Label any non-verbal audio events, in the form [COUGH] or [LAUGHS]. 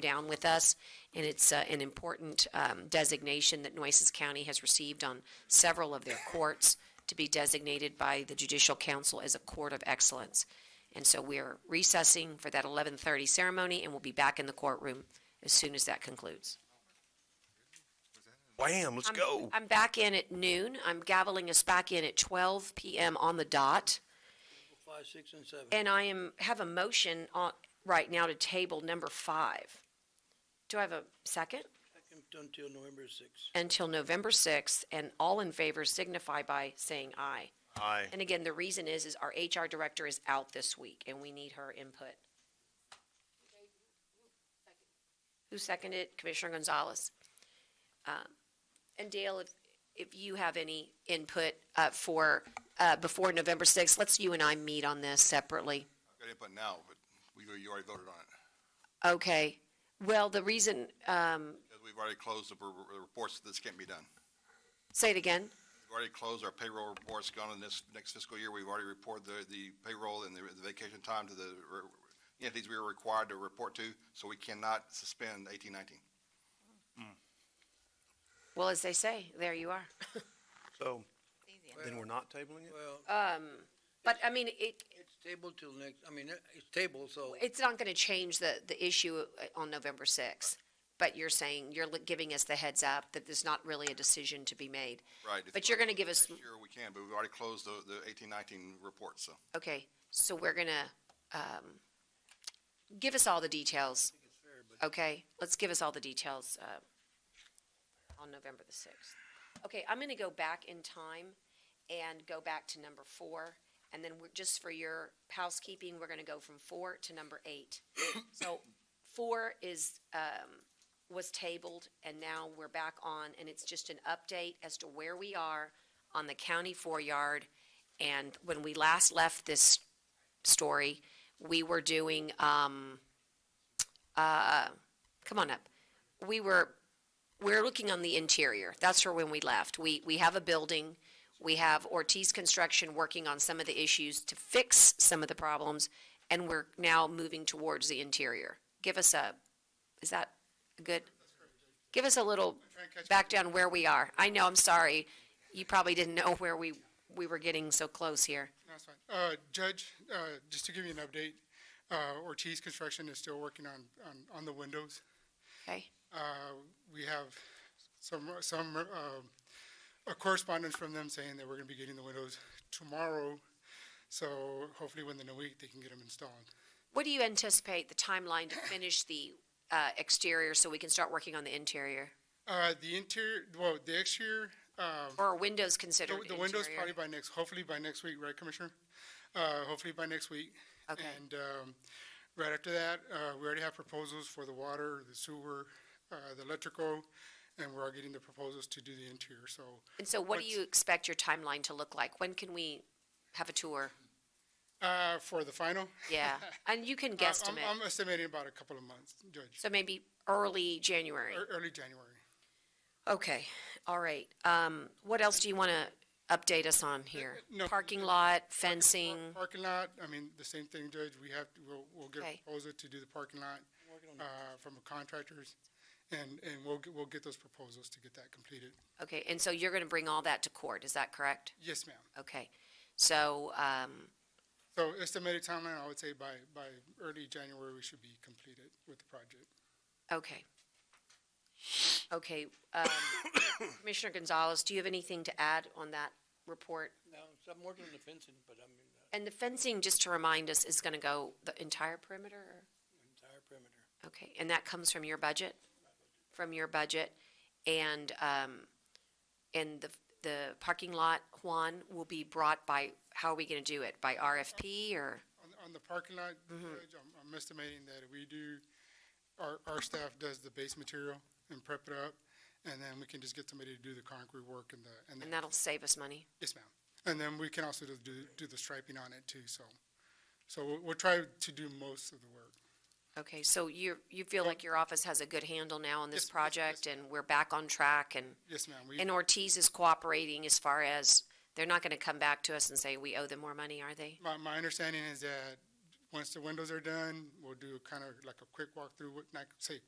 down with us, and it's uh, an important um, designation that Nueces County has received on several of their courts to be designated by the Judicial Council as a court of excellence. And so we're recessing for that 11:30 ceremony, and we'll be back in the courtroom as soon as that concludes. Wham, let's I'm- go. I'm back in at noon. I'm gaveling us back in at 12 PM on the dot. Five, six, and seven. And I am, have a motion on, right now to table number five. Do I have a second? Second Until November sixth. Until November 6th, and all in favor signify by saying aye. Aye. And again, the reason is, is our HR director is out this week, and we need her input. Who seconded? Commissioner Gonzalez. Um, And Dale, if, if you have any input uh, for, uh, before November 6th, let's you and I meet on this separately. Got input now, but we, you already voted on it, Okay. Well, the reason, um, because we've already closed the r- r- reports, this can't be done. say it again. We've already closed our payroll reports, gone in this next fiscal year, we've already reported the, the payroll and the the vacation time to the r- entities we were required to report to, so we cannot suspend eighteen nineteen. Well, as they say, there you are. So, then we're not tabling it? Well, But I mean, it, it's tabled till next, I mean, it's tabled, so it's not going to change the, the issue uh, on November 6th. But you're saying, you're li- giving us the heads up that there's not really a decision to be made. Right. if But you- you're going to give us, Next year we can, but we've already closed the, the eighteen nineteen reports, so. okay, so we're going to, um, give us all the details. Okay, let's give us all the details, uh, on November the 6th. Okay, I'm going to go back in time and go back to number four. And then we're, just for your housekeeping, we're going to go from four to number eight. So four is, um, was tabled and now we're back on and it's just an update as to where we are on the county four yard. And when we last left this story, we were doing, um, uh, come on up. We were we're looking on the interior. That's where when we left. We, we have a building. We have Ortiz Construction working on some of the issues to fix some of the problems, and we're now moving towards the interior. Give us a, is that good? Give us a little back down where we are. I know, I'm sorry. You probably didn't know where we, we were getting so close here. That's fine. Uh, Judge, uh, just to give you an update, uh, Ortiz Construction is still working on, on, on the windows. Okay? Uh, we have some, some, um, a correspondence from them saying that we're gonna be getting the windows tomorrow. So hopefully within a week, they can get them installed. What do you anticipate the timeline to finish the uh, exterior so we can start working on the interior? Uh, the interior, well, the exterior, um, Or are windows the- considered the windows interior? probably by next, hopefully by next week, right, Commissioner? Uh, hopefully by next week. Okay. And um, right after that, uh, we already have proposals for the water, the sewer, uh, the electrical, and we're getting the proposals to do the interior, so. And so what do What's- you expect your timeline to look like? When can we have a [LAUGHS] tour? uh, For the final? uh, Yeah, and you can I'm- guesstimate, I'm estimating about a couple of months, Judge, so maybe early January. Ear- early January. Okay, all right. Um, what else do you want to update us on here? no, Parking lot, fencing, Parking lot, I mean, the same thing, Judge, we have, to- we'll, we'll get a Okay. proposal to do the parking lot uh, from the contractors, and, and we'll, get- we'll get those proposals to get that completed. okay, and so you're going to bring all that to court, is that correct? Yes, ma'am. Okay, so, um, So estimated timeline, I would say by, by early January, we should be completed with the project. okay. Okay, um, [COUGHS] Commissioner Gonzalez, do you have anything to add on that report? now, so I'm working on the fencing, but I mean, uh, And the fencing, just to remind us, is gonna go the entire perimeter? or- entire perimeter. Okay, and that comes from your budget? From your budget? And, um, and the, the parking lot, Juan, will be brought by, how are we gonna do it? By RFP or? On, on the parking lot, Mm-hmm. Judge, I'm, I'm estimating that we do, our, our staff does the base material and prep it up, and then we can just get somebody to do the concrete work and the, and And the, that'll save us money? yes, ma'am. And then we can also do, do the striping on it too, so, so we'll, we'll try to do most of the work. Okay, so you, you feel like your office has a good handle now on this Yes, yes, yes. project and we're back on track and? Yes, ma'am, we, And Ortiz is cooperating as far as, they're not gonna come back to us and say, we owe them more money, are they? my, my understanding is that once the windows are done, we'll do kind of like a quick walkthrough, what- not say